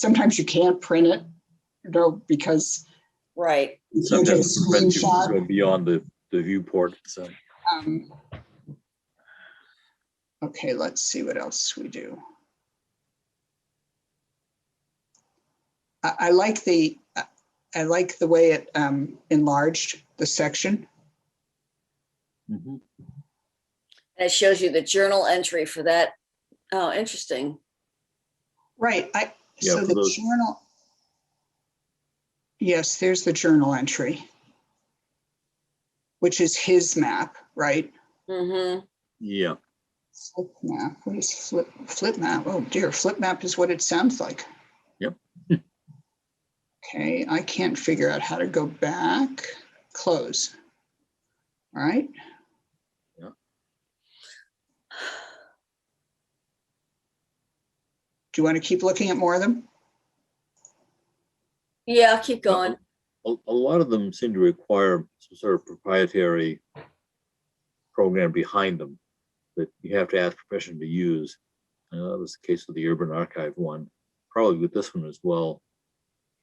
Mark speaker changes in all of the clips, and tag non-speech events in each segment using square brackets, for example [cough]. Speaker 1: sometimes you can't print it, you know, because,
Speaker 2: Right.
Speaker 1: You can get a
Speaker 3: Sometimes prevent you
Speaker 1: screenshot.
Speaker 3: from going beyond the, the viewport, so.
Speaker 1: um, okay, let's see what else we do. I, I like the, I- I like the way it, um, enlarged the section.
Speaker 3: Mhm.
Speaker 2: And it shows you the journal entry for that. Oh, interesting.
Speaker 1: Right, I,
Speaker 3: Yeah,
Speaker 1: so
Speaker 3: for
Speaker 1: the
Speaker 3: those-
Speaker 1: journal. Yes, there's the journal entry. Which is his map, right?
Speaker 2: hmm
Speaker 3: Yeah,
Speaker 1: Flip map, what is flip, flip map? Oh dear, flip map is what it sounds like.
Speaker 3: Yep.
Speaker 1: Okay, I can't figure out how to go back, close. All right, do you want to keep looking at more of them?
Speaker 2: Yeah, keep
Speaker 3: Oh,
Speaker 2: going.
Speaker 3: a, a lot of them seem to require some sort of proprietary program behind them that you have to ask permission to use. Uh, that was the case with the Urban Archive one, probably with this one as well.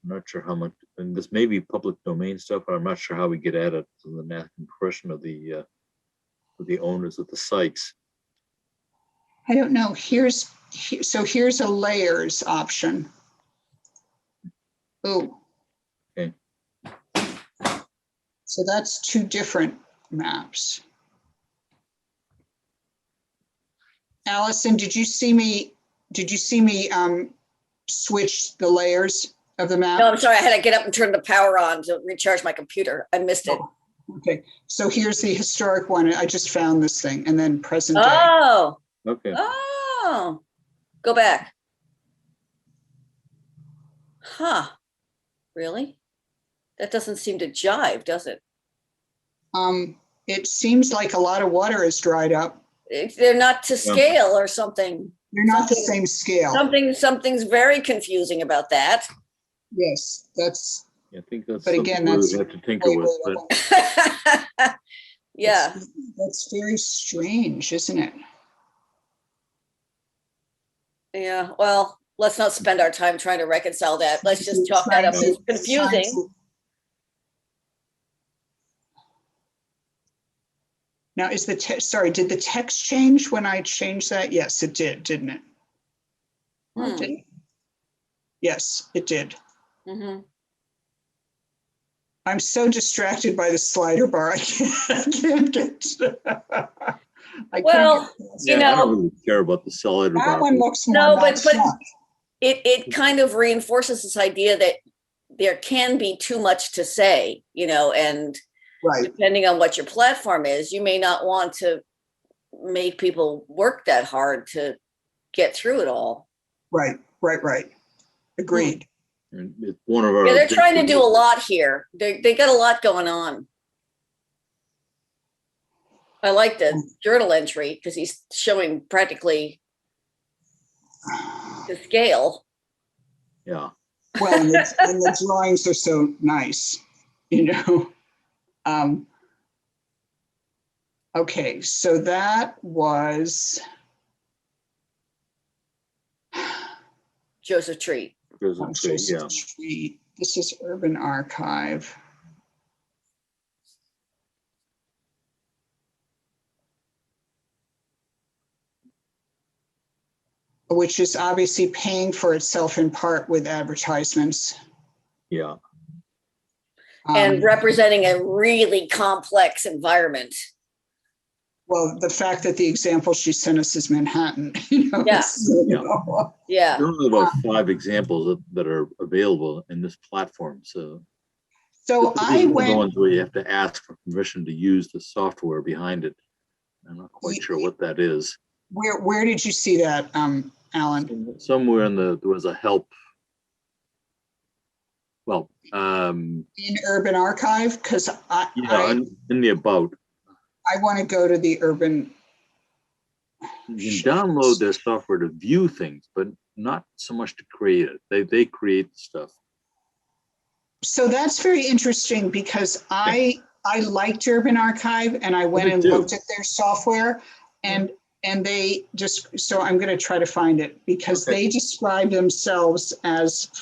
Speaker 3: I'm not sure how much, and this may be public domain stuff, but I'm not sure how we get at it, and then asking permission of the, uh, of the owners of the sites.
Speaker 1: I don't know, here's, he- so here's a layers option. Oh.
Speaker 3: Okay.
Speaker 1: So that's two different maps. Allison, did you see me, did you see me um switch the layers of the map?
Speaker 2: No, I'm sorry. I had to get up and turn the power on to recharge my computer. I missed it.
Speaker 1: Okay, so here's the historic one, I just found this thing, and then present day.
Speaker 2: Oh,
Speaker 3: Okay,
Speaker 2: oh, go back. Huh, really? That doesn't seem to jive, does it?
Speaker 1: Um, it seems like a lot of water has dried up.
Speaker 2: If They're not to scale or something.
Speaker 1: They're not the same
Speaker 2: Something-
Speaker 1: scale.
Speaker 2: Something, something's very confusing about that. [laughs]
Speaker 1: Yes, that's.
Speaker 3: I think that's.
Speaker 1: Oh. But again,
Speaker 3: something we
Speaker 1: that's
Speaker 3: would Have to tinker with, but.
Speaker 2: Yeah,
Speaker 1: That's- That's very strange, isn't it?
Speaker 2: yeah. Well, let's not spend our time trying to reconcile that. Let's just chalk that up as confusing.
Speaker 1: Now, is the, te- sorry, did the text change when I changed that? Yes, it did, didn't it? Or it?
Speaker 2: Hmm.
Speaker 1: didn't? Yes, it did.
Speaker 2: hmm
Speaker 1: I'm so distracted by the slider bar. I can't, I can't get. [laughs] I can't
Speaker 2: Well,
Speaker 1: get past
Speaker 2: You
Speaker 1: it.
Speaker 3: Yeah,
Speaker 2: know-
Speaker 3: I don't really care about the solid.
Speaker 1: That one looks more.
Speaker 2: No, but-
Speaker 1: boxed
Speaker 2: but-
Speaker 1: up.
Speaker 2: It, it kind of reinforces this idea that there can be too much to say, you know, and
Speaker 1: Right.
Speaker 2: depending on what your platform is, you may not want to make people work that hard to get through it all.
Speaker 1: Right, right, right. Agreed.
Speaker 3: And It's one of our.
Speaker 2: Yeah, they're trying to do a
Speaker 3: objectives.
Speaker 2: lot here. They, they got a lot going on. I like the journal entry because he's showing practically the scale.
Speaker 3: Yeah,
Speaker 1: Well, and the, and the drawings are so nice, you know? Um, okay, so that was,
Speaker 2: Joseph Tree.
Speaker 3: there's a
Speaker 1: I'm
Speaker 3: tree,
Speaker 1: just-
Speaker 3: yeah.
Speaker 1: this is Urban Archive. Which is obviously paying for itself in part with advertisements.
Speaker 3: Yeah,
Speaker 1: Um,
Speaker 2: and representing a really complex environment.
Speaker 1: Well, the fact that the example she sent us is Manhattan, [laughs] you know.
Speaker 2: Yeah.
Speaker 1: it's, you
Speaker 3: Yeah.
Speaker 1: know,
Speaker 2: Yeah.
Speaker 3: there are about five examples that- that are available in this platform, so.
Speaker 1: So
Speaker 3: this is
Speaker 1: I
Speaker 3: one of The
Speaker 1: went,
Speaker 3: ones where you have to ask for permission to use the software behind it. I'm not quite sure what that is.
Speaker 1: where, where did you see that, um, Alan?
Speaker 3: Somewhere in the, there was a help. Well, um,
Speaker 1: In Urban Archive? Because I,
Speaker 3: yeah,
Speaker 1: I,
Speaker 3: in- in the about,
Speaker 1: I want to go to the urban,
Speaker 3: you can download their software to view things, but not so much to create it. They, they create stuff.
Speaker 1: so that's very interesting because I, I liked Urban Archive and I went
Speaker 3: Me
Speaker 1: and
Speaker 3: too.
Speaker 1: looked at their software. And And they just, so I'm going to try to find it because
Speaker 3: Okay.
Speaker 1: they describe themselves as